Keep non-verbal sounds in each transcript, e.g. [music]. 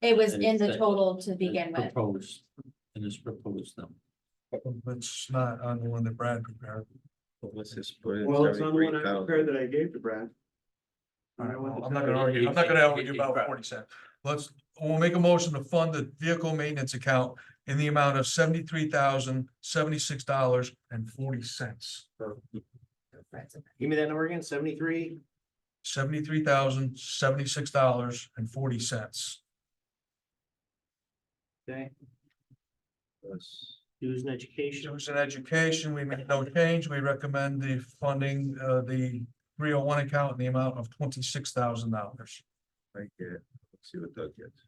It was And in the it's- total to begin with. Proposed, and it's proposed them. It's not on the one that Brad prepared. What's this? put in Well, it's on the one I 73,000. prepared that I gave to Brad. All right, well, I'm not not gonna argue, I'm not gonna argue about forty cent. Let's, we'll make a motion to fund the vehicle maintenance account in the amount of seventy-three thousand, seventy-six dollars and forty cents. Give me that number again, seventy-three? Seventy-three thousand, seventy-six dollars and forty cents. Okay, Yes. dues and education. Students in education, we made no change. We recommend the funding, uh, the three oh one account in the amount of twenty-six thousand dollars. I get it. Let's see what Doug gets.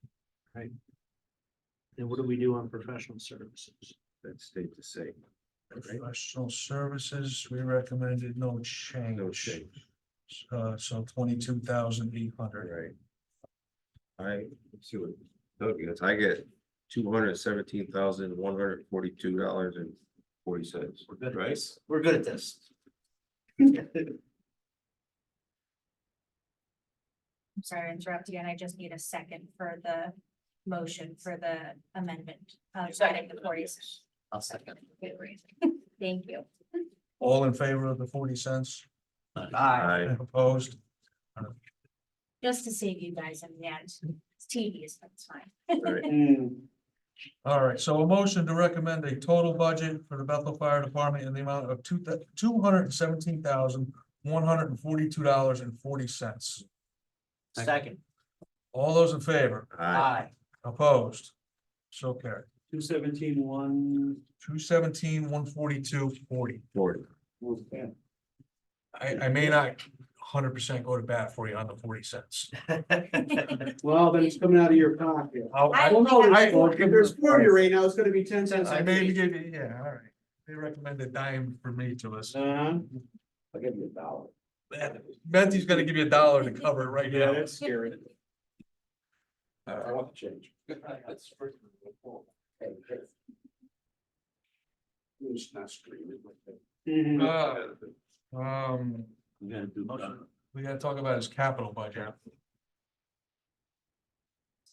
And what do we do on professional services? That stayed the same. right? Professional services, we recommended no change. No change, Uh, so twenty-two thousand eight hundred. right? I, let's see what Doug gets. I get two hundred seventeen thousand, one hundred forty-two dollars and forty cents. We're good at Right. this. We're good at this. I'm sorry to interrupt you, and I just need a second for the motion for the amendment. Uh, adding the forty. I'll second. Good reason. [laughs] Thank you. All in favor of the forty cents? Ah. I, Opposed? Just to save you guys in the end. It's tedious, but it's fine. [laughs] Hmm. All right, so a motion to recommend a total budget for the Bethel Fire Department in the amount of two, two hundred and seventeen thousand, one hundred and forty-two dollars and forty cents. Second, All those in favor? I, aye. Opposed? So carried. Two seventeen, one, Two seventeen, one forty-two, forty. Jordan. I, I may not hundred percent go to bat for you on the forty cents. well, then it's coming out of your pocket. I'll- I- Well, no, I- there's four- if there's four of you right now, it's gonna be ten cents. I maybe give you, yeah, all right. They recommend a dime for me to us. Uh-huh. I'll give you a dollar. Betsy's gonna give you a dollar to cover it right Yeah, now. that's scary. I Uh, [laughs] want to change. It's not screaming like that. uh, Um, We're gonna do, uh, we gotta talk about his capital budget.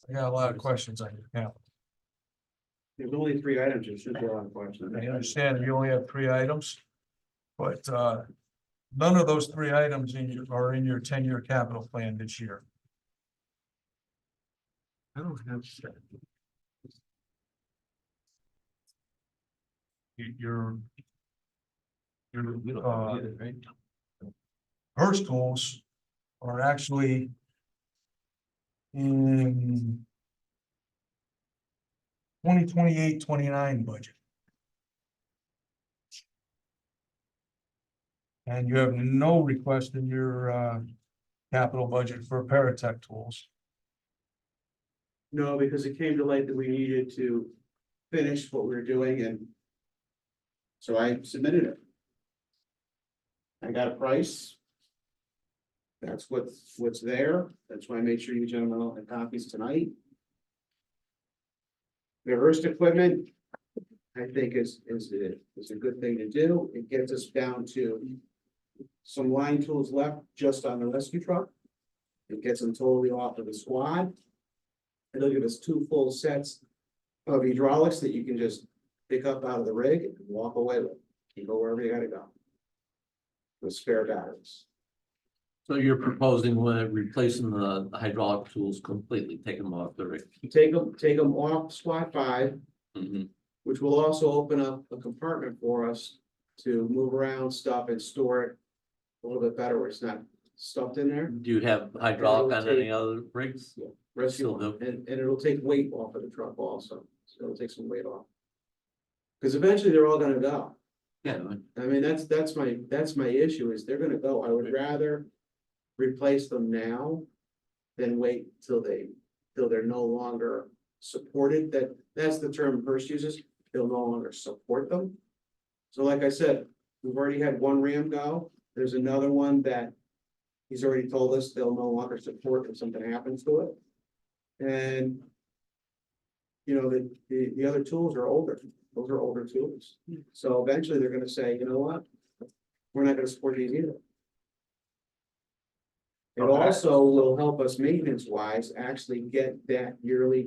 I got a lot of questions on your capital. There's only three items, it should be a lot of questions. I understand you only have three items. But uh, none of those three items in your, are in your ten-year capital plan this year. I don't have that. You- Your. Your We don't Uh, have it either, right? her schools are actually in 2028-29 budget. And you have no request in your, uh, capital budget for paratech tools. No, because it came to light that we needed to finish what we were doing and. So I submitted it. I got a price. That's what's, what's there, that's why I made sure you gentlemen all had copies tonight. The Hearst equipment, I think is, is, is a good thing to do, it gets us down to. Some line tools left just on the rescue truck. It gets them totally off of the squad. It'll give us two full sets of hydraulics that you can just pick up out of the rig and walk away with. You go wherever you gotta go. With spare batteries. so you're proposing when replacing the hydraulic tools completely, take them off the rig. You take them, take them off squad five, Mm-hmm. Mhm. which will also open up a compartment for us to move around stuff and store it a little bit better where it's not stuffed in there. Do you have hydraulic on any other rigs? Still Rescue, do. and, and it'll take weight off of the truck also. So it'll take some weight off. Cause eventually they're all gonna go. Yeah, I mean, that's, that's my, that's my issue is they're gonna go, I would rather replace them now. Than wait till they, till they're no longer supported, that, that's the term Hearst uses, they'll no longer support them. So like I said, we've already had one Ram go, there's another one that. He's already told us they'll no longer support if something happens to it. And. You know, the, the, the other tools are older, those are older tools. So eventually they're gonna say, you know what? We're not gonna support these either. It also will help us maintenance wise actually get that yearly